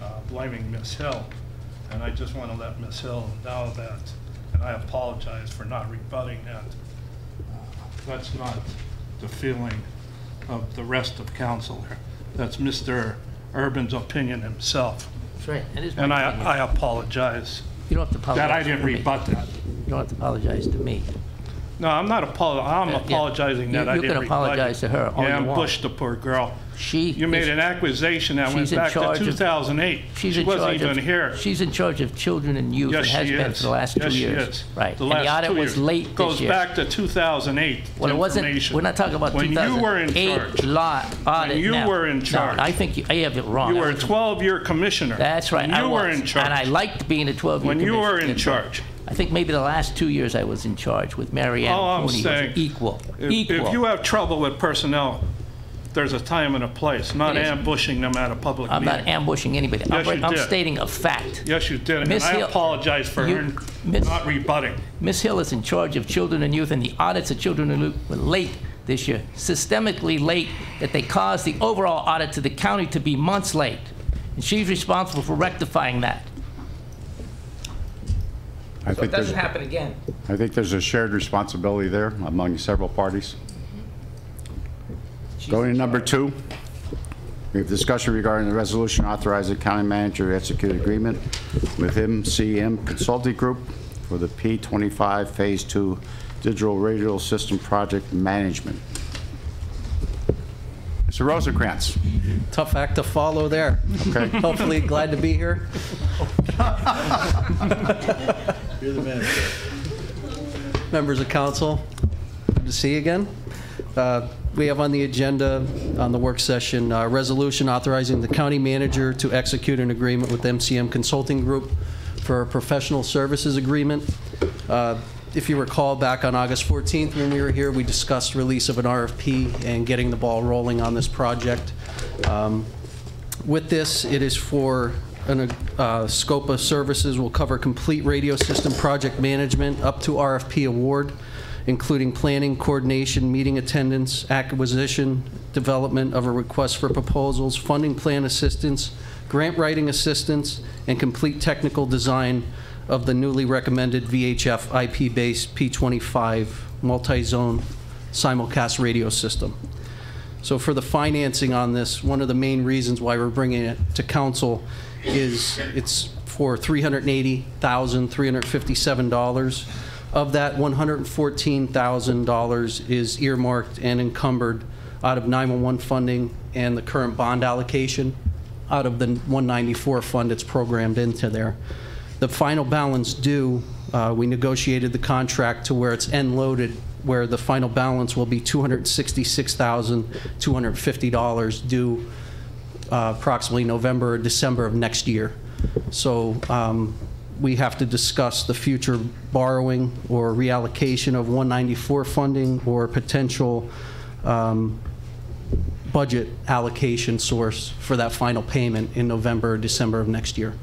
uh, blaming Miss Hill, and I just want to let Miss Hill know that, and I apologize for not rebutting that. Uh, That's not the feeling of the rest of council here. That's Mr. Urban's opinion himself, That's right. That is my and I opinion. I apologize You don't have to apologize. that I didn't to me. rebut that. You don't have to apologize to me. No, I'm not apol, I'm Yeah. apologizing that You- I you didn't rebut can it. apologize to her all Yeah, you want. ambushed the poor girl. She You made is- an accusation that went she's in back to charge of- 2008. She's She in charge of... wasn't even here. She's in charge of children and youth Yes, and has she been is. for the last two Yes, she years. is. Right. The And last the audit two was years. late this Goes year. back to 2008 Well, it wasn't, information. we're not talking about When you were in charge, 2008 law, audit you now. were in No, charge. I think you, I have it wrong. you I were a was- 12-year commissioner. That's right. When I you were was. in charge. And I liked being a 12-year When you were commissioner. in charge. I think maybe the last two years I was in charge with Mary Ann All I'm Cooney. It was saying- Equal, If equal. if you have trouble with personnel, there's a time and a place, not It is. ambushing them at a public I'm not meeting. ambushing anybody. I'm Yes, you right- I'm did. stating a fact. Yes, you did, and Miss I Hill- apologize for her You- Miss- not rebutting. Ms. Hill is in charge of children and youth, and the audits of children and youth were late this year, systemically late, that they caused the overall audit to the county to be months late. And she's responsible for rectifying that. I think there's, I happen again. think there's a shared responsibility there among several parties. Going to number two, we have discussion regarding the resolution authorizing county manager to execute agreement with MCM Consulting Group for the P25 Phase 2 Digital Radio System Project Management. Mr. Rosencrantz, tough act to follow there. okay? Hopefully, glad to be here. Members of council, good to see you again. Uh, We have on the agenda, on the work session, a resolution authorizing the county manager to execute an agreement with MCM Consulting Group for a professional services agreement. Uh, If you recall, back on August 14th, when we were here, we discussed release of an RFP and getting the ball rolling on this project. Um, with this, it is for, an uh, scope of services will cover complete radio system project management up to RFP award, including planning, coordination, meeting attendance, acquisition, development of a request for proposals, funding plan assistance, grant writing assistance, and complete technical design of the newly recommended VHF IP-based P25 multi-zone simulcast radio system. So for the financing on this, one of the main reasons why we're bringing it to council is it's for $380,357. Of that, $114,000 is earmarked and encumbered out of 911 funding and the current bond allocation out of the 194 fund it's programmed into there. The final balance due, uh, we negotiated the contract to where it's end-loaded, where the final balance will be $266,250 due uh, approximately November or December of next year. So um, we have to discuss the future borrowing or reallocation of 194 funding or potential um, budget allocation source for that final payment in November or December of next year.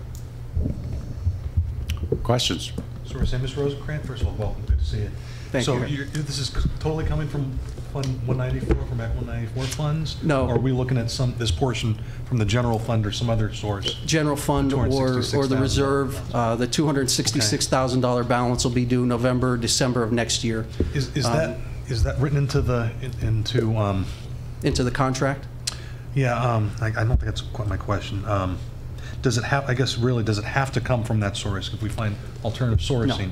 Questions? So we're saying, Ms. Rosencrantz, first of all, welcome, good to see you. Thank So you. you're- this is totally coming from Fund 194, from Act 194 funds? No. Or are we looking at some, this portion from the general fund or some other source? General fund or, or the $266,000. reserve, uh, the $266,000 balance will be due November, December of next year Is, is that, Um, is that written into the, in- into, um, into the contract. yeah, um, I, I don't think that's quite my question. Um, Does it have, I guess really, does it have to come from that source? If we find alternative sourcing?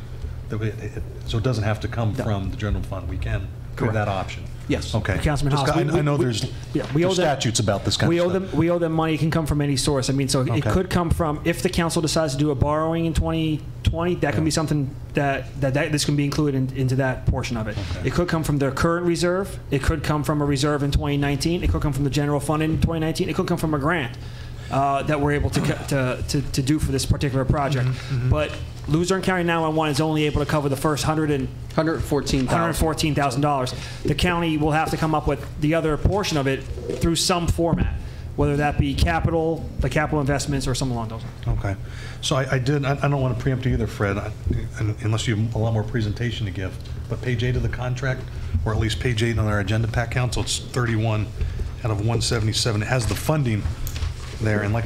that we- it- it- So it doesn't have to come from the general fund, we can, through Correct. that option? Yes. Okay. Councilman Just Haas, got- we- I I know we- there's Yeah, we there's owe them- statutes about this kind of We stuff. owe them. We owe them money. It can come from any source. I mean, so it Okay. could come from if the council decides to do a borrowing in 2020. That can be something that, that that this can be included in, into that portion of it. It could come from their current reserve. It could come from a reserve in 2019. It could come from the general fund in 2019. It could come from a grant uh, that we're able to, co- to, to to do for this particular project. Mm-hmm. But Luzerne County 911 is only able to cover the first 100 and 114,000. $114,000. The county will have to come up with the other portion of it through some format, whether that be capital, the capital investments, or something along those lines. Okay. So I, I did, I I don't want to preempt you either, Fred, I- un- unless you have a lot more presentation to give. But page eight of the contract, or at least page eight on our agenda pack council, it's 31 out of 177. It has the funding there, and like I